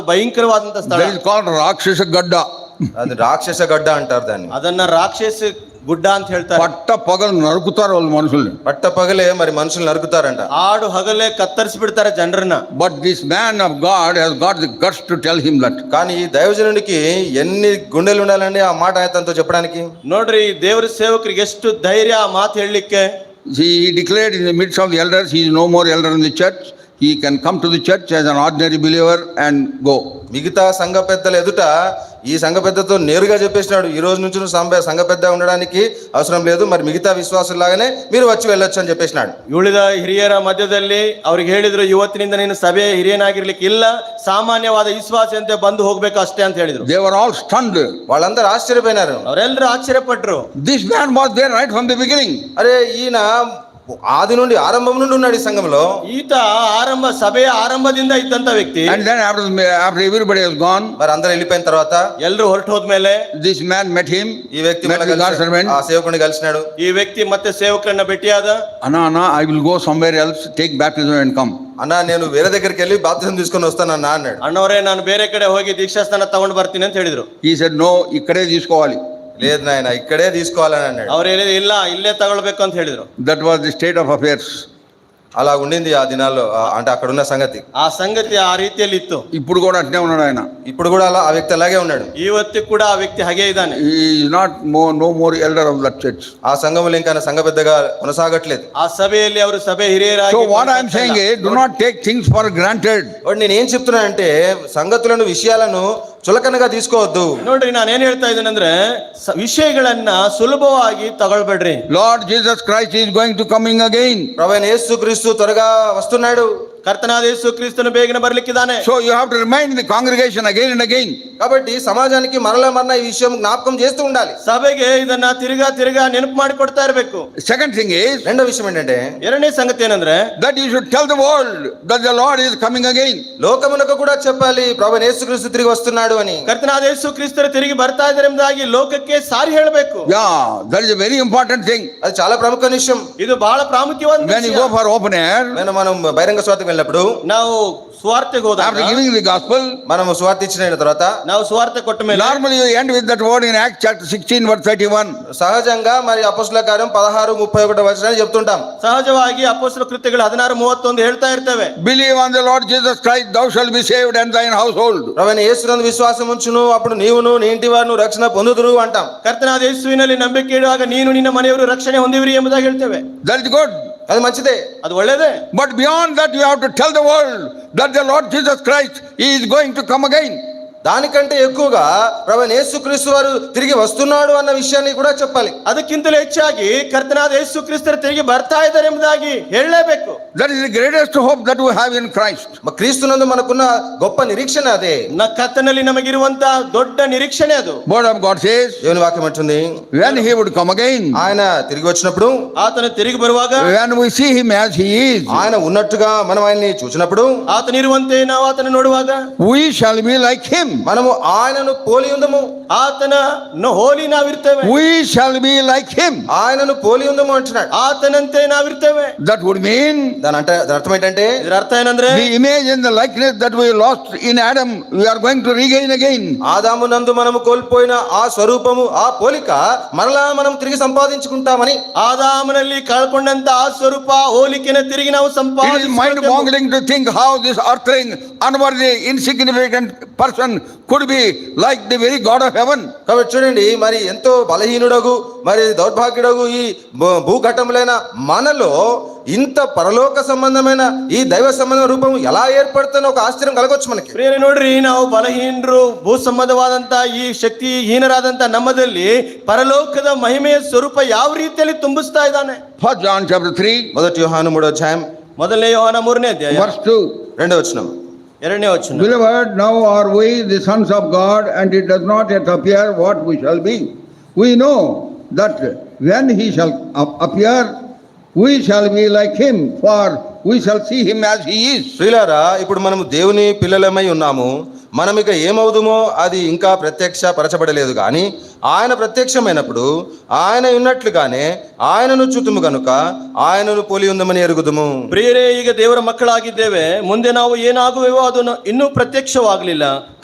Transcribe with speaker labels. Speaker 1: ಭಯಂಕರವಾದಂತ ಸ್ಥಳ
Speaker 2: That is called Rakshasa Gadda.
Speaker 3: అది రాక్షస గడ్డ అంటారు దాన్ని
Speaker 1: ಅದನ್ನ ರಾಕ್ಷಸ ಗುಡ್ಡ ಅಂತ ಹೇಳ್ತಾರೆ
Speaker 2: పట్ట పగలు నరుకుతారు వాళ్ళు మనుషుల్ని
Speaker 3: పట్ట పగలే మరి మనుషులు నరుకుతారంట
Speaker 1: ಆಡು ಹಗಲೇ ಕತ್ತರಿಸಿ ಬಿಡ್ತಾರೆ ಜನರನ್ನ
Speaker 2: but this man of God he's got the guts to tell him that
Speaker 3: కానీ ఈ దైవజనుడికి ఎన్ని గుండెలు ఉండాలండి ఆ మాట ఆయతంతో చెప్పడానికి
Speaker 1: ನೋಡ್ರಿ ಈ ದೇವ್ರ ಸೇವಕರಿಗೆ ಎಷ್ಟು ಧೈರ್ಯ ಆ ಮಾತು ಹೇಳಲಿಕ್ಕೆ
Speaker 2: He declared in the midst of the elders, he is no more elder in the church. He can come to the church as an ordinary believer and go.
Speaker 3: మిగతా సంఘ పెద్దల ఎదుట ఈ సంఘ పెద్దతో నేరుగా చెప్పేసినాడు ఈ రోజు నుంచి నువ్వు సంఘ- సంఘ పెద్ద ఉండడానికి అవసరం లేదు మరి మిగతా విశ్వాసులాగానే మీరు వచ్చి వెళ్ళొచ్చు అని చెప్పేసినాడు
Speaker 1: ಉಳಿದ ಹಿರಿಯರ ಮಧ್ಯದಲ್ಲಿ ಅವ್ರಿಗೆ ಹೇಳಿದ್ರು ಇವತ್ತಿನಿಂದ ನೀನು ಸಭೆಯ ಹಿರಿಯನಾಗಿರ್ಲಿಕ್ಕೆ ಇಲ್ಲ ಸಾಮಾನ್ಯವಾದ ವಿಶ್ವಾಸಿಯಂತೆ ಬಂದು ಹೋಗ್ಬೇಕು ಅಷ್ಟೇ ಅಂತ ಹೇಳಿದ್ರು
Speaker 2: They were all stunned.
Speaker 3: వాళ్ళందరూ ఆశ్చర్యపోయినారు
Speaker 1: ಅವರೆಲ್ಲರೂ ಆಶ್ಚರ್ಯಪಟ್ರು
Speaker 2: This man was there right from the beginning.
Speaker 3: అరే ఈయన ఆది నుండి ఆరంభం నుండి ఉన్నాడు ఈ సంఘంలో
Speaker 1: ಈತ ಆರಂಭ ಸಭೆಯ ಆರಂಭದಿಂದ ಇದ್ದಂತ ವ್ಯಕ್ತಿ
Speaker 2: And then after, the- after everybody has gone,
Speaker 3: మరి అందరూ వెళ్ళిపోయిన తర్వాత
Speaker 1: ಎಲ್ಲರೂ ಹೊರಟು ಹೋದ್ಮೇಲೆ
Speaker 2: this man met him,
Speaker 3: ఈ వ్యక్తి
Speaker 2: met
Speaker 3: మళ్ళా
Speaker 2: the God
Speaker 3: కలిసి-
Speaker 2: servant.
Speaker 3: ఆ సేవకుని కలిసినాడు
Speaker 1: ಈ ವ್ಯಕ್ತಿ ಮತ್ತೆ ಸೇವಕರನ್ನ ಭೇಟಿಯಾದ
Speaker 2: Anna, Anna, I will go somewhere else, take baptism and come.
Speaker 3: అన్నా నేను వేరే దగ్గరికి వెళ్ళి బాప్తిజం తీసుకొని వస్తానన్నా అన్నాడు
Speaker 1: ಅಣ್ಣವರೇ ನಾನು ಬೇರೆ ಕಡೆ ಹೋಗಿ ದೀಕ್ಷಾಸ್ಥಾನ ತಗೊಂಡು ಬರ್ತೀನಿ ಅಂತ ಹೇಳಿದ್ರು
Speaker 2: He said, no, ikkade తీసుకోవాలి.
Speaker 3: లేదు నాయన ఇక్కడే తీసుకోవాలని అన్నాడు
Speaker 1: ಅವ್ರು ಹೇಳಿದ್ರು ಇಲ್ಲ ಇಲ್ಲೇ ತಗೊಳ್ಬೇಕು ಅಂತ ಹೇಳಿದ್ರು
Speaker 2: That was the state of affairs.
Speaker 3: అలా ఉండింది ఆ దినాల్లో ఆ- అంటే అక్కడ ఉన్న సంగతి
Speaker 1: ಆ ಸಂಗತಿ ಆ ರೀತಿಯಲ್ಲಿ ಇತ್ತು
Speaker 2: ఇప్పుడు కూడా అట్నే ఉన్నాడు ఆయన.
Speaker 3: ఇప్పుడు కూడా అలా ఆ వ్యక్తి అలాగే ఉన్నాడు
Speaker 1: ಇವತ್ತು ಕೂಡ ಆ ವ್ಯಕ್ತಿ ಹಾಗೆ ಇದ್ದಾನೆ
Speaker 2: He is not more, no more elder of that church.
Speaker 3: ఆ సంఘములు ఇంకా ఆయన సంఘ పెద్దగా కొనసాగట్లేదు
Speaker 1: ಆ ಸಭೆಯಲ್ಲಿ ಅವರು ಸಭೆ ಹಿರಿಯರಾಗಿ
Speaker 2: So what I am saying is, do not take things for granted.
Speaker 3: వాడు నేను ఏం చెప్తున్నానంటే సంగతులను విషయాలను చులకనగా తీసుకోవద్దు
Speaker 1: ನೋಡ್ರಿ ನಾನು ಏನ್ ಹೇಳ್ತಾ ಇದ್ದೇನೆಂದ್ರೆ ಸ- ವಿಷಯಗಳನ್ನ ಸುಲಭವಾಗಿ ತಗೊಳ್ಬೇಡ್ರಿ
Speaker 2: Lord Jesus Christ is going to coming again.
Speaker 3: ప్రభైన యేసుక్రీస్తు త్వరగా వస్తున్నాడు
Speaker 1: ಕರ್ತನಾದ ಯೇಸು ಕ್ರಿಸ್ತನು ಬೇಗನೆ ಬರ್ಲಿಕ್ಕಿದ್ದಾನೆ
Speaker 2: So you have to remind the congregation again and again.
Speaker 3: కాబట్టి సమాజానికి మరలా మరలా ఈ విషయం జ్ఞాపకం చేస్తూ ఉండాలి
Speaker 1: ಸಭೆಗೆ ಇದನ್ನ ತಿರ್ಗಾ ತಿರ್ಗಾ ನೆನಪು ಮಾಡಿ ಕೊಡ್ತಾ ಇರ್ಬೇಕು
Speaker 2: Second thing is
Speaker 3: రెండో విషయం ఏంటంటే
Speaker 1: ಎರಡನೇ ಸಂಗತಿ ಏನಂದ್ರೆ
Speaker 2: that you should tell the world that the Lord is coming again.
Speaker 3: లోకమునకు కూడా చెప్పాలి ప్రభైన యేసుక్రీస్తు తిరిగి వస్తున్నాడు అని
Speaker 1: ಕರ್ತನಾದ ಯೇಸು ಕ್ರಿಸ್ತರು ತಿರುಗಿ ಬರ್ತಾ ಇದ್ದಾರೆ ಎಂಬುದಾಗಿ ಲೋಕಕ್ಕೆ ಸಾರಿ ಹೇಳಬೇಕು
Speaker 2: Yeah, that is a very important thing.
Speaker 3: అది చాలా ప్రముఖ విషయం
Speaker 1: ಇದು ಬಹಳ ಪ್ರಾಮುಖ್ಯವಾದ
Speaker 2: When you
Speaker 1: ವಿಷಯ.
Speaker 2: go for open air,
Speaker 3: నేను మనం బహిరంగ స్వార్థకు వెళ్ళినప్పుడు
Speaker 1: ನಾವು ಸ್ವಾರ್ಥಕ್ಕೆ ಹೋದಾಗ
Speaker 2: after giving the gospel,
Speaker 3: మనము స్వార్థ ఇచ్చిన తర్వాత
Speaker 1: ನಾವು ಸ್ವಾರ್ಥ ಕೊಟ್ಟ ಮೇಲೆ
Speaker 2: normally you end with that word in Acts chapter 16 verse 31.
Speaker 3: సహజంగా మరి అపస్తుల కార్యం పదహారు ముప్పై ఒకటి వచ్చిన చెప్తుంటాం
Speaker 1: ಸಹಜವಾಗಿ ಅಪೋಸ್ತಲ ಕೃತ್ಯಗಳು ಹದಿನಾರು ಮೂವತ್ತೊಂದು ಹೇಳ್ತಾ ಇರ್ತೇವೆ
Speaker 2: Believe on the Lord Jesus Christ, thou shalt be saved and thine household.
Speaker 3: ప్రవణ యేసునందు విశ్వాసం ఉంచును అప్పుడు నీవును నీ ఇంటి వారు రక్షణ పొందుదురు అంటాం
Speaker 1: ಕರ್ತನಾದ ಯೇಸುವಿನಲ್ಲಿ ನಂಬಿಕೆ ಇಡುವಾಗ ನೀನು ನಿನ್ನ ಮನೆಯವರು ರಕ್ಷಣೆ ಹೊಂದಿವಿರಿ ಎಂಬುದಾಗಿ ಹೇಳ್ತೇವೆ
Speaker 2: That is good.
Speaker 3: అది మంచిదే
Speaker 1: ಅದು ಒಳ್ಳೇದೇ
Speaker 2: But beyond that, you have to tell the world that the Lord Jesus Christ he is going to come again.
Speaker 3: దానికంటే ఎక్కువగా ప్రవణ యేసుక్రీస్తు వారు తిరిగి వస్తున్నాడు అన్న విషయాన్ని కూడా చెప్పాలి
Speaker 1: ಅದಕ್ಕಿಂತಲೂ ಹೆಚ್ಚಾಗಿ ಕರ್ತನಾದ ಯೇಸು ಕ್ರಿಸ್ತರು ತಿರುಗಿ ಬರ್ತಾ ಇದ್ದಾರೆ ಎಂಬುದಾಗಿ ಹೇಳಲೇಬೇಕು
Speaker 2: That is the greatest hope that we have in Christ.
Speaker 3: మ- క్రీస్తునందు మనకున్న గొప్ప నిరీక్షణ అదే
Speaker 1: ನ ಕರ್ತನಲ್ಲಿ ನಮಗಿರುವಂತಹ ದೊಡ್ಡ ನಿರೀಕ್ಷಣೆ ಅದು
Speaker 2: Word of God says,
Speaker 3: దేవుని వాక్యం అంటుంది
Speaker 2: when he would come again,
Speaker 3: ఆయన తిరిగి వచ్చినప్పుడు
Speaker 1: ಆತನು ತಿರುಗಿ ಬರುವಾಗ
Speaker 2: when we see him as he is,
Speaker 3: ఆయన ఉన్నట్టుగా మనం ఆయన్ని చూసినప్పుడు
Speaker 1: ಆತನಿರುವಂತೆ ನಾವು ಆತನ ನೋಡುವಾಗ
Speaker 2: we shall be like him.
Speaker 3: మనము ఆయనను పోలి ఉందము
Speaker 1: ಆತನ ನ- ಹೋಲಿ ನಾವಿರ್ತೇವೆ
Speaker 2: We shall be like him.
Speaker 3: ఆయనను పోలి ఉందము అంటున్నాడు
Speaker 1: ಆತನಂತೆ ನಾವಿರ್ತೇವೆ
Speaker 2: That would mean
Speaker 3: దాని అంటే దాని అర్థం ఏంటంటే
Speaker 1: ಇದರ ಅರ್ಥ ಏನಂದ್ರೆ
Speaker 2: the image and the likeness that we lost in Adam, we are going to regain again.
Speaker 3: ఆదాము నందు మనము కోల్పోయిన ఆ స్వరూపము ఆ పోలిక మరలా మనం తిరిగి సంపాదించుకుంటామని
Speaker 1: ಆದಾಮನಲ್ಲಿ ಕಳ್ಕೊಂಡಂತ ಆ ಸ್ವರೂಪ ಹೋಲಿಕೆನ ತಿರುಗಿ ನಾವು
Speaker 2: It is mind
Speaker 1: ಸಂಪಾದಿಸಿಕೊಳ್ಳಬೇಕು.
Speaker 2: boggling to think how this earthling, unworthy, insignificant person could be like the very God of heaven.
Speaker 3: కాబట్టి చూడండి మరి ఎంతో బలహీనుడగు మరి దౌర్భాగ్యుడగు ఈ భూ- భూఘటములైన మనలో ఇంత పరలోక సంబంధమైన ఈ దైవ సంబంధ రూపం ఎలా ఏర్పడుతుందో ఒక ఆశ్చర్యం కలగొచ్చు మనకి
Speaker 1: ಪ್ರಿಯರೇ ನೋಡ್ರಿ ನಾವು ಬಲಹೀನರು ಭೂ ಸಂಬಂಧವಾದಂತ ಈ ಶಕ್ತಿ ಹೀನರಾದಂತ ನಮ್ಮದಲ್ಲಿ ಪರಲೋಕದ ಮಹಿಮೆಯ ಸ್ವರೂಪ ಯಾವ ರೀತಿಯಲ್ಲಿ ತುಂಬಿಸ್ತಾ ಇದ್ದಾನೆ
Speaker 2: First John chapter 3,
Speaker 3: మొదటి యోహాను మూడో అధ్యాయం
Speaker 1: ಮೊದಲನೇ ಯೋಹನ ಮೂರನೇ ಅಧ್ಯಾಯ
Speaker 2: verse 2.
Speaker 3: రెండో వచనం
Speaker 1: ಎರಡನೇ ವಚನ
Speaker 2: Beloved, now are we the sons of God, and it does not yet appear what we shall be. We know that when he shall ap- appear, we shall be like him, for we shall see him as he is.
Speaker 3: ప్రియులారా ఇప్పుడు మనం దేవుని పిల్లలమై ఉన్నాము మనం ఇక ఏమవుదుమో అది ఇంకా ప్రత్యక్ష పరచబడలేదు కానీ ఆయన ప్రత్యక్షమైనప్పుడు ఆయన ఉన్నట్లుగానే ఆయనను చూతుము గనుక ఆయనను పోలి ఉందమని ఎరుగుదుము
Speaker 1: ಪ್ರಿಯರೇ ಈಗ ದೇವರ ಮಕ್ಕಳಾಗಿದ್ದೇವೆ ಮುಂದೆ ನಾವು ಏನಾಗುವೆವೋ ಅದು ಇನ್ನೂ ಪ್ರತ್ಯಕ್ಷವಾಗಲಿಲ್ಲ